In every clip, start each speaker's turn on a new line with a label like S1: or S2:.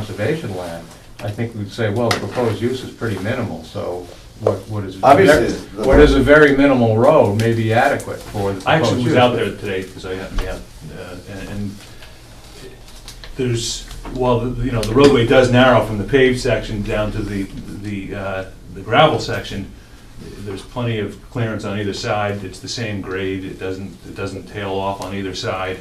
S1: conservation land, I think we'd say, well, the proposed use is pretty minimal, so what, what is?
S2: Obviously, the-
S1: What is a very minimal road may be adequate for the proposed use.
S3: I actually was out there today, because I happened to have, uh, and- and there's, while, the- you know, the roadway does narrow from the paved section down to the, the uh, the gravel section, there's plenty of clearance on either side, it's the same grade, it doesn't, it doesn't tail off on either side.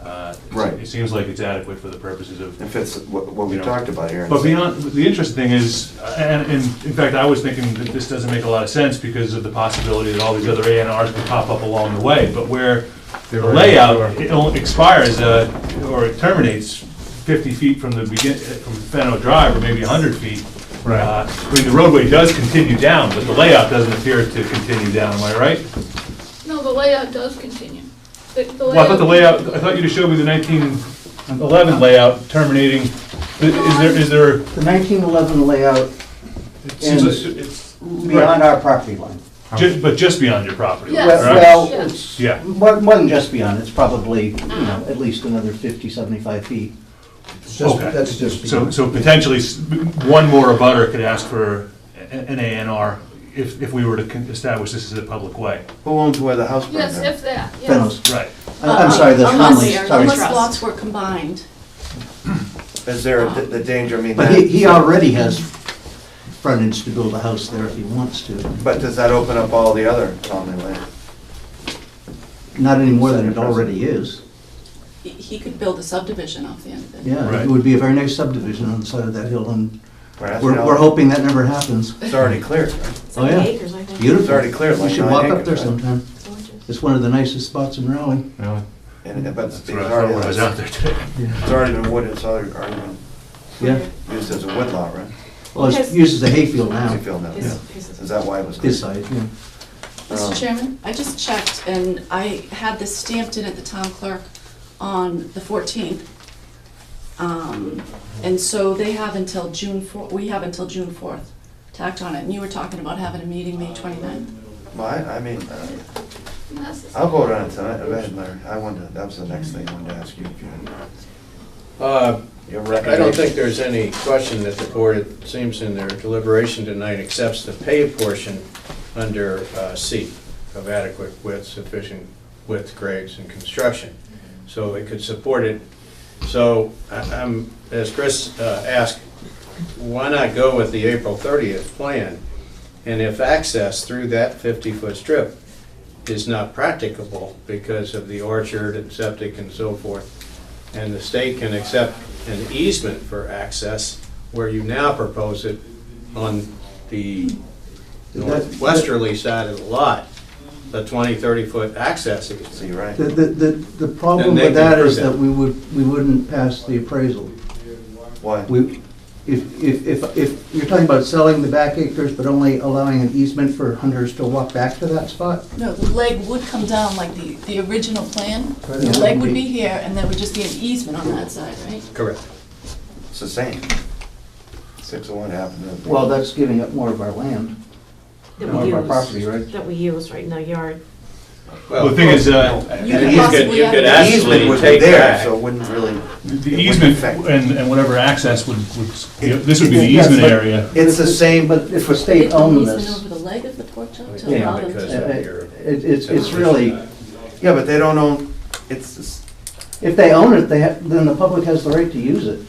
S3: Uh, it's-
S2: Right.
S3: It seems like it's adequate for the purposes of
S2: If it's what what we
S3: You know.
S2: talked about here.
S3: but beyond, the interesting thing is, and, and in fact, I was thinking that this doesn't make a lot of sense because of the possibility that all these other A and Rs could pop up along the way, but where the
S1: There are-
S3: layout, it only expires, uh, or it terminates fifty feet from the begin, uh, from Fennel Drive, or maybe hundred feet.
S1: Right.
S3: Uh, I mean, the roadway does continue down, but the layout doesn't appear to continue down, am I right?
S4: No, the layout does continue. The- the
S3: Well, I thought the layout, I thought you just showed me the nineteen eleven layout terminating, is there, is there?
S5: The 1911 layout
S3: it seems like
S5: And-
S3: it's-
S5: beyond our property line.
S3: Ju- but just beyond your property.
S4: Yes.
S3: line,
S5: Well-
S3: right?
S5: Well,
S4: Yeah.
S5: it's,
S3: Yeah.
S5: more more than just beyond, it's probably, you know, at least another 50, 75 feet.
S6: It's just-
S3: Okay.
S6: That's just.
S3: So, so potentially, s- one more abutter could ask for a- an A and R if, if we were to con- establish this as a public way.
S2: Who owns where the house burned
S4: Yes,
S2: down?
S4: if that, yes.
S5: Fennels.
S3: Right.
S5: I- I'm sorry, the Conley,
S7: Unless,
S5: sorry.
S7: unless lots were combined.
S2: Is there a- the danger, I mean,
S5: But he, he
S2: that,
S5: already has frontage to build a house there if he wants to.
S2: but does that open up all the other common land?
S5: Not any more than it already is.
S7: He- He could build a subdivision off the end of it.
S5: Yeah,
S3: Right.
S5: it would be a very nice subdivision on the side of that hill, and
S2: Perhaps
S5: we're,
S2: now-
S5: we're hoping that never happens.
S2: It's already cleared, right?
S5: Oh, yeah.
S7: acres, I think.
S5: Beautiful.
S2: It's already cleared,
S5: You
S2: like
S5: should
S2: nine
S5: walk up
S2: acres,
S5: there
S2: right?
S5: sometime.
S7: It's gorgeous.
S5: It's one of the nicest spots in Raleigh.
S1: Really?
S2: And, and- but it's
S3: That's what I thought when I was out
S2: already,
S3: there today.
S2: it's already been wood, it's already, already been
S5: Yeah.
S2: used as a woodlot, right?
S5: Well, it's used as a hayfield now,
S2: As a field now.
S7: His-
S2: Is
S7: his-
S2: that why it was? Um,
S5: this
S2: cleared?
S5: side, yeah. Oh.
S7: Mr. Chairman, I just checked, and I had this stamped in at the town clerk on the 14th. Um, And so they have until June 4, we have until June 4th to act on it. And you were talking about having a meeting May 29th.
S2: Well, I, I mean, uh,
S4: Yes.
S5: Oh.
S2: I'll vote on it tonight, Go ahead, Larry, I wanted, that was the next thing I wanted to ask you. if you had
S8: Uh,
S2: Your
S8: I don't think
S2: recommendation.
S8: there's any question that the board, it seems in their deliberation tonight, accepts the paved portion under uh, C of adequate width, sufficient width grades and construction. So it could support it. So I- I'm, as Chris uh, asked, why not go with the April 30th plan? And if access through that 50-foot strip is not practicable because of the orchard and septic and so forth, and the state can accept an easement for access where you now propose it on the northwesterly side of the lot, the 20, 30-foot access easement.
S2: So you're right.
S5: The, the, the the problem
S8: Then they
S5: with that
S8: can
S5: is
S8: prove
S5: that we would, we wouldn't pass the appraisal.
S2: Why?
S5: We, if, if, if, if you're talking about selling the back acres, but only allowing an easement for hunters to walk back to that spot?
S7: No, the leg would come down like the, the original plan.
S5: Right.
S7: The leg would be here, and there would just be an easement on that side, right?
S8: Correct.
S2: It's the same. Six of one happened to.
S5: Well, that's giving up more of our land,
S9: that
S5: more
S9: we
S5: of our
S9: use-
S5: property, right?
S9: That we use right in the yard.
S3: Well, the thing is, uh,
S7: You
S8: And
S7: could
S8: you could,
S7: possibly
S8: you
S7: have
S8: could
S7: an
S2: The
S7: easement
S8: actually
S2: easement was
S8: take
S2: there,
S8: back.
S2: so it wouldn't really.
S3: the
S2: it
S3: easement
S2: wouldn't affect.
S3: and, and whatever access would, would, this would be the easement
S5: Yes, but-
S3: area.
S2: It's the same, but
S5: But if the
S7: They
S5: state
S7: put an
S5: owned
S7: easement
S5: this,
S7: over the leg of the pork chop to
S5: Yeah,
S7: allow them
S8: because
S7: to.
S5: uh,
S8: of
S5: it,
S8: your-
S5: it's, it's really,
S2: Yeah, but they don't own, it's, it's-
S5: if they own it, they have, then the public has the right to use it.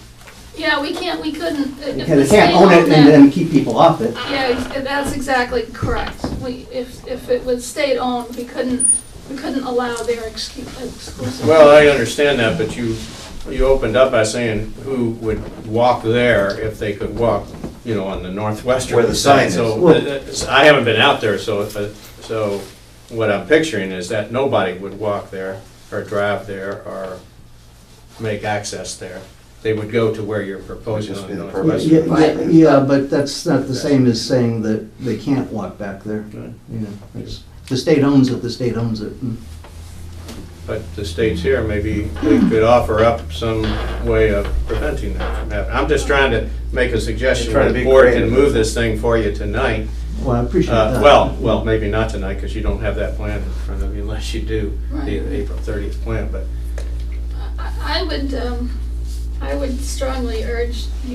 S4: Yeah, we can't, we couldn't. uh, if
S5: They
S4: the
S5: can't
S4: state
S5: own it
S4: owned
S5: and
S4: that-
S5: then keep people off it.
S4: Yeah, ex- that's exactly correct. We, if, if it was state-owned, we couldn't, we couldn't allow their excu- uh, exclusive.
S8: Well, I
S3: uh-
S8: understand that, but you, you opened up by saying who would walk there if they could walk, you know, on the northwestern.
S2: Where the sign is.
S8: So,
S5: Well-
S8: uh, I haven't been out there, so, uh, so what I'm picturing is that nobody would walk there or drive there or make access there. They would go to where you're proposing
S2: Just
S8: on
S2: be the
S5: Yeah,
S8: northwestern.
S2: purpose.
S5: yeah, yeah, yeah, but that's not the same as saying that they can't walk back there. You know, it's- The state owns it, the state owns it. Mm. and-
S8: But the state's here, maybe we could offer up some way of preventing that from happening. I'm just trying to make a suggestion,
S2: You're trying to be
S8: the board can
S2: creative.
S8: move this thing for you tonight.
S5: Well, I appreciate
S8: Uh,
S5: that.
S8: Well, well, maybe not tonight, because you don't have that plan in front of you, unless you do
S4: Right.
S8: the April 30th plan, but
S4: I I would, um, I would strongly urge you